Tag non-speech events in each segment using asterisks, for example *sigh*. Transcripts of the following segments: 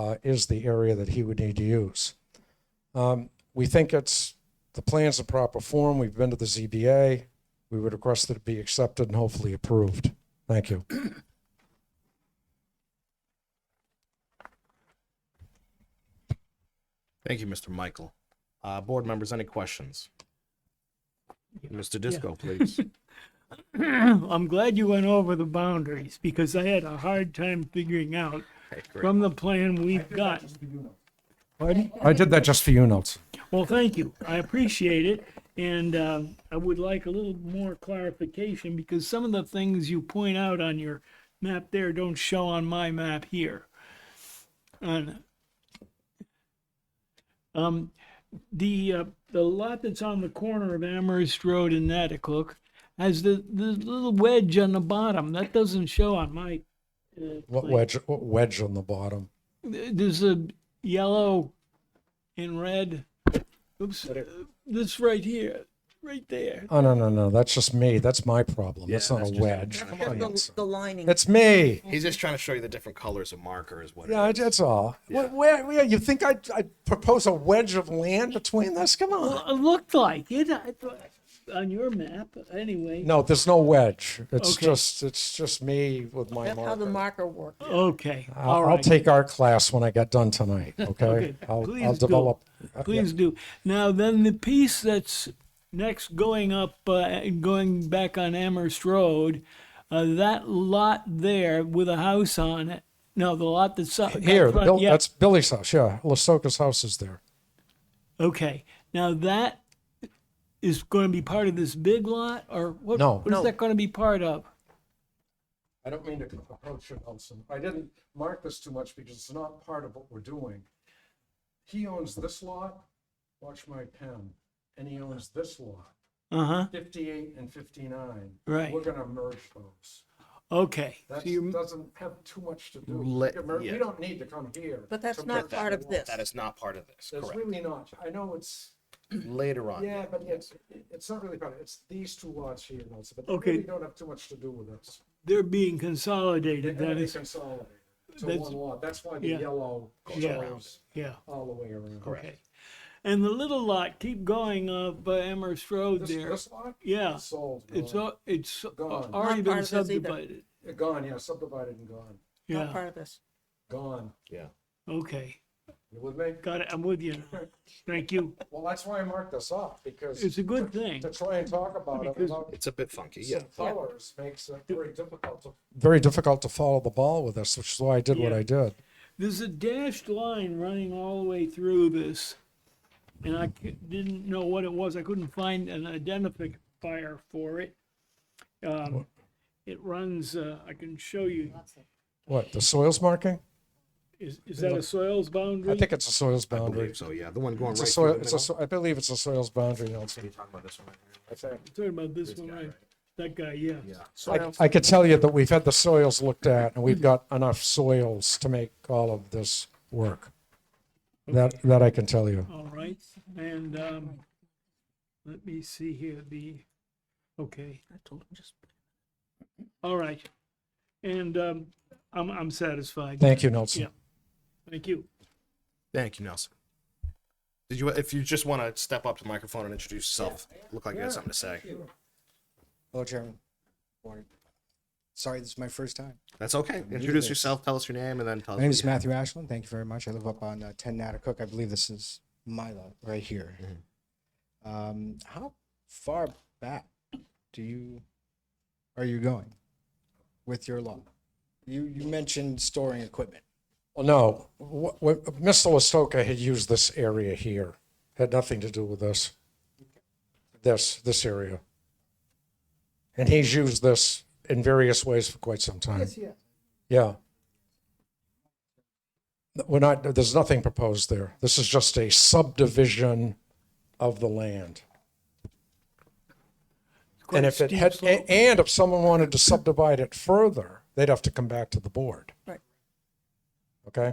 uh, is the area that he would need to use. Um, We think it's, the plan's in proper form. We've been to the ZBA. We would request that it be accepted and hopefully approved. Thank you. Thank you, Mr. Michael. Uh, board members, any questions? *laughs* Mr. Disco, please. *clears throat* I'm glad you went over the boundaries because I had a hard time figuring out Okay, great. from the plan we've got. I did that just for you, Notes. Well, thank you. I appreciate it. And um, I would like a little more clarification because some of the things you point out on your map there don't show on my map here. On- um, the, uh, the lot that's on the corner of Amherst Road and Natticook has the, the little wedge on the bottom. That doesn't show on my. uh, What plan. wedge, what wedge on the bottom? There's a yellow and red. Oops, uh, this right here, right there. Oh, no, no, no, that's just me. That's my problem. That's Yeah, not a that's just- wedge. that's Come just- on, The, It's the lining. it's me. He's just trying to show you the different colors of marker is what. it Yeah, I- is. that's all. What, where, where- you think I'd, I'd propose a wedge of land between this? Come on. Well, it looked like it I thought, on your map, anyway. No, there's no wedge. It's Okay. just, it's just me with my That's how the marker. marker worked. Okay, I'll, all I'll right. take our class when I get done *laughs* tonight. Okay, Okay, I'll, please I'll do. develop. uh, Please do. Now, then the piece that's next going up, uh, and going back on Amherst Road, uh, that lot there with a house on it. No, the lot that's up. Here, up front, Bill, yeah. that's Billy's house. Yeah, Lasoka's house is there. Okay, now that is going to be part of this big lot, or what? No. What is No. that going to be part of? I don't mean to approach it, Olson. I didn't mark this too much because it's not part of what we're doing. He owns this lot, watch my pen, and he owns this lot, Uh huh. fifty-eight and fifty-nine. Right. We're gonna merge those. Okay. That So you, doesn't have too much to do. Let- We can mer- We yeah. don't need to come here. But that's to not merge part the of lot. this. That is not part of this, It's correct? really not. I know it's, Later Uh, on. yeah, but it's, it's not really part of it. It's these two lots here, Nelson, but they Okay. really don't have too much to do with this. they're being consolidated. They're That gonna be is. consolidated to that's- one lot. That's why the yeah. yellow Goes around. goes Yeah. all the way around. Correct. Okay. And the little lot, keep going up uh, Amherst Road This, there. this lot? yeah. It's Sold. It's gone. al- it's Gone. already Not been part of this either. subdivided. Gone, yeah, subdivided and gone. Not Yeah. part of this. Gone. Yeah. Okay. You with me? Got it. I'm with *laughs* you. now. Thank you. Well, that's why I marked this off, because. It's a good to- thing. To try and talk about it Because- without It's a bit funky, yeah. some colors makes it very difficult to. Very difficult to follow the ball with this, which is why I did what Yeah. I did. There's a dashed line running all the way through this, and I c- didn't know what it was. I couldn't find an identifier for it. Um, it runs. Uh, I can show you. What, the soils marking? Is, is that a soils boundary? I think it's a soils I boundary. believe so, yeah. The one going It's right a through the soil, it's a, middle. so- I believe it's a soils boundary, Nelson. Talking about this one right here. I think. I'm talking about this one, right? That guy, yeah. I, I could tell you that we've had the soils looked at and we've got enough soils to make all of this work. That, that I can tell you. All right, and um, let me see here. The okay, I told him just. all right, and um, I'm I'm satisfied. Thank you, Nelson. Yeah. Thank you. Thank you, Nelson. Did you, if you just want to step up to the microphone and introduce yourself, look like you had something to say. Hello, Chairman. Morning. Sorry, this is my first time. That's okay. new to Introduce this. yourself, tell us your name, and then tell us. My name what is you- Matthew Ashland. Thank you very much. I live up on uh, 10 Natticook. I believe this is my lot right here. Um, how far back do you are you going with your lot? You you mentioned storing equipment. Well, no, what, what, Mr. Listoka had used this area here, had nothing to do with this. This, this area. And he's used this in various ways for quite some time. yeah. Yeah. We're not, there's nothing proposed there. This is just a subdivision of the land. And if it had, a- and if someone wanted to subdivide it further, they'd have to come back to the board. Right. Okay?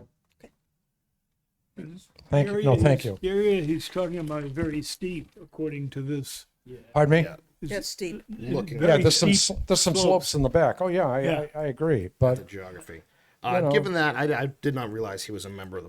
Thank you, no, Area thank he's- you. The area he's talking about is very steep, according to this. Pardon me? Yeah. Is That's steep. it- Looking it's at Yeah, very there's some, steep sl- there's some slopes in the back. Oh, yeah, I, Yeah. I, I agree, The but geography. Uh, know. given that, I, I did not realize he was a member of the